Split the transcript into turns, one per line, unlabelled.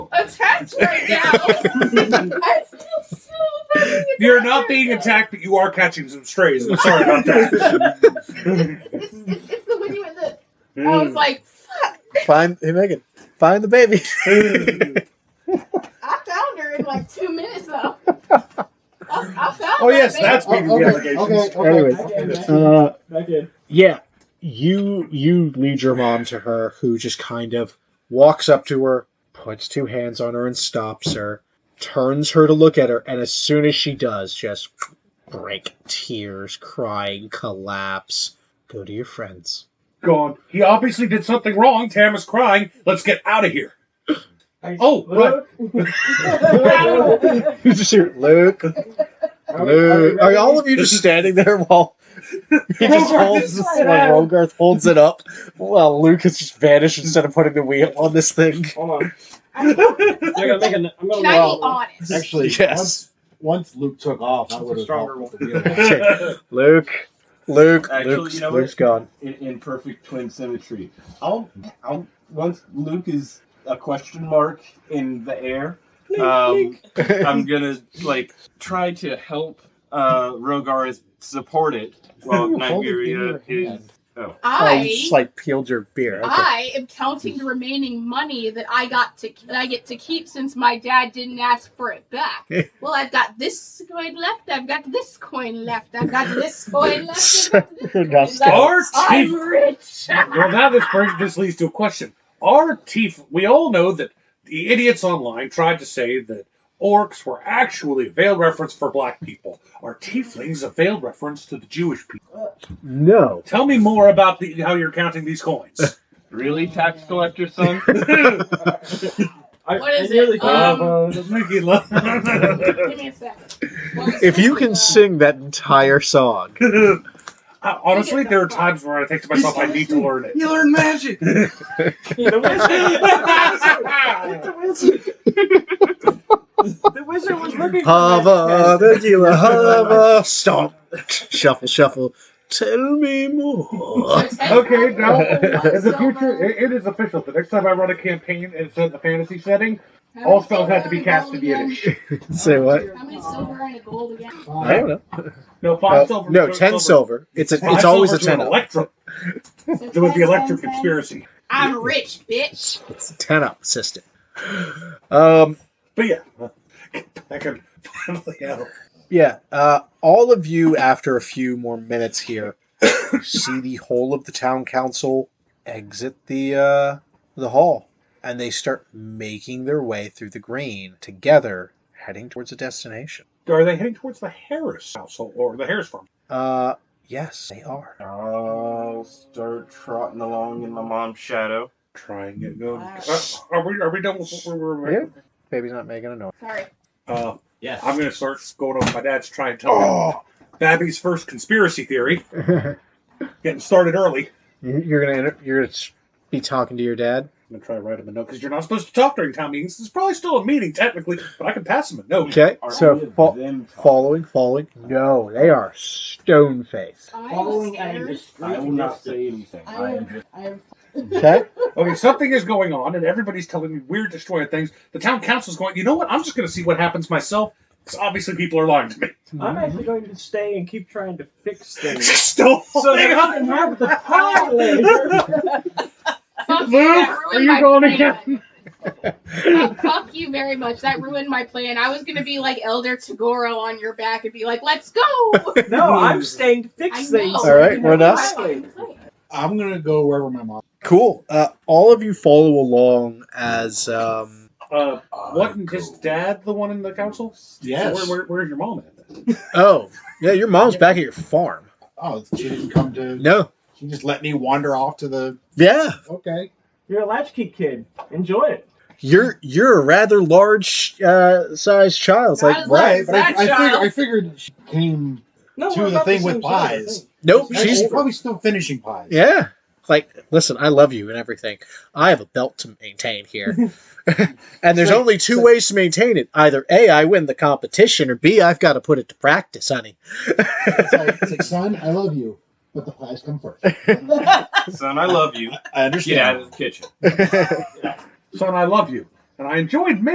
attacked right now. I'm still so fucking
You're
attacked
not being
right now.
attacked, but you are catching some strays. I'm sorry about that.
It's, it's, it's the when you in the. I
Mm.
was like, fuck.
Find hey Megan, find the baby.
I found her in like two minutes though. I, I found
Oh,
that
yes,
baby.
that's-
Okay, okay, okay, okay.
Anyways. Uh,
Back in.
yeah you you lead your mom to her who just kind of walks up to her puts two hands on her and stops her turns her to look at her and as soon as she does just break tears crying collapse go to your friends
Gone. He obviously did something wrong. Tam is crying. Let's get out of here. Oh, right.
Are
you just hear luke
we- are we
luke are all
ready?
of you just standing there while he
Rogarth
just holds
is
this,
right
like,
at him.
Rogarth holds it up while luke has just vanished instead of putting the wheel on this thing
Hold on.
I-
They're gonna make an, I'm
Can
gonna
I
roll.
be honest?
Actually,
Yes.
once, once Luke took off, I
That's a
would have
stronger
Oh, helped.
luke luke
Actually,
luke's,
you know what?
luke's gone
in, in perfect twin symmetry. I'll, I'll once Luke is a question mark in the air. Um, I'm gonna like try to help uh, Rogarth support it while
You're holding
Nigeria
it in your
is.
hand.
Oh,
Oh,
I
you just like peeled your beer. Okay.
I am counting the remaining money that I got to that I get to keep since my dad didn't ask for it back. well, I've got this coin left. I've got this coin left. I've got this coin left. I've got this
You're
coin
not
left.
Our
I'm
chief.
rich.
Well, now this brings this leads to a question. Our chief. We all know that the idiots online tried to say that orcs were actually a veiled reference for black people. Are tieflings a veiled reference to the Jewish people?
No.
Tell me more about the, how you're counting these coins.
really, tax collector son?
I,
What is
I nearly uh,
it?
thought-
Um,
Mickey Lo-
Give me a second.
If you can sing that entire song,
I- Honestly, there are times where I think to myself, I need to learn it.
You learn magic.
the wizard,
I
the wizard, the wizard was looking. for
hava
that.
tequila, hava stomp, shuffle, shuffle. Tell me more.
Okay, now, In the future, it, it is official. The next time I run a campaign and set in the fantasy setting, all spells have to be cast in Yiddish.
Say what?
How many silver and a gold again?
I don't know.
No,
Uh,
five silver.
no,
two
ten silver. It's a,
Five
it's always a
silver to an
ten up.
Electro.
So
There was the
10,
electric
10, 10.
conspiracy.
I'm rich, bitch.
It's a ten up system. Um,
But yeah, I could finally out.
yeah. Uh, all of you, after a few more minutes here, see the whole of the town council exit the uh, the hall, and they start making their way through the green together, heading towards a destination.
Are they heading towards the Harris household or the Harris farm?
Uh, yes, they are.
I'll start trotting along in my mom's shadow.
Trying it. No.
Wow.
Uh, are we? Are we done with what we were?
Yeah. Baby's not making a noise.
Sorry.
Uh,
Yes.
I'm gonna start going off my dad's trying to tell
Oh.
me Babby's first conspiracy theory. Getting started early.
you're gonna inter- you're gonna s- be talking to your dad.
I'm gonna try to write him a note because you're not supposed to talk during town meetings. It's probably still a meeting technically, but I can pass him a note.
Okay,
Are any
so
of
fo-
them talking?
following, following. No, they are stone faced.
I'm
Following at a
scared.
I will
discreet
not
distance.
say anything. I am just
I am
Okay,
Okay, something is going on, and everybody's telling me weird, destroying things. The town council's going. You know what? I'm just gonna see what happens myself. Because obviously people are lying to me.
I'm
Mm-hmm.
actually going to stay and keep trying to fix things.
Still
So
holding
that
on.
I can have the pie later.
Fuck
Luke,
that
are
ruined
you
my
going
plan. Oh, fuck you very much. That ruined my plan. I was gonna be like Elder Tagoro on your back and be like, "Let's go."
No, I'm staying to
I
fix
know.
things.
All right, we're done.
I'm gonna go wherever my mom.
cool. Uh, all of you follow along as um,
Uh, wasn't his dad the one in the council?
Yes.
So where, where, where's your mom at? Then?
Oh, yeah, your mom's back at your farm.
Oh, she didn't come to.
No.
She just let me wander off to the.
Yeah.
Okay.
You're a latchkey kid. Enjoy it.
You're you're a rather large uh sized child. It's like
Not as
what?
large-
Right, but I, I,
That
figured,
child.
I figured she came.
No,
To
we're
the
about
thing with
same size, I
pies.
think.
Nope,
It's
she's
She's
actually-
probably still finishing pies.
yeah. It's Like, listen, I love you and everything. I have a belt to maintain here. and there's
Like-
only two ways to maintain it. Either A, I win the competition, or B, I've got to put it to practice, honey.
It's like, it's like, son, I love you, but the pies come first.
son. I love you.
I
Get out
understand.
of the kitchen.
Son, I love you, and I enjoyed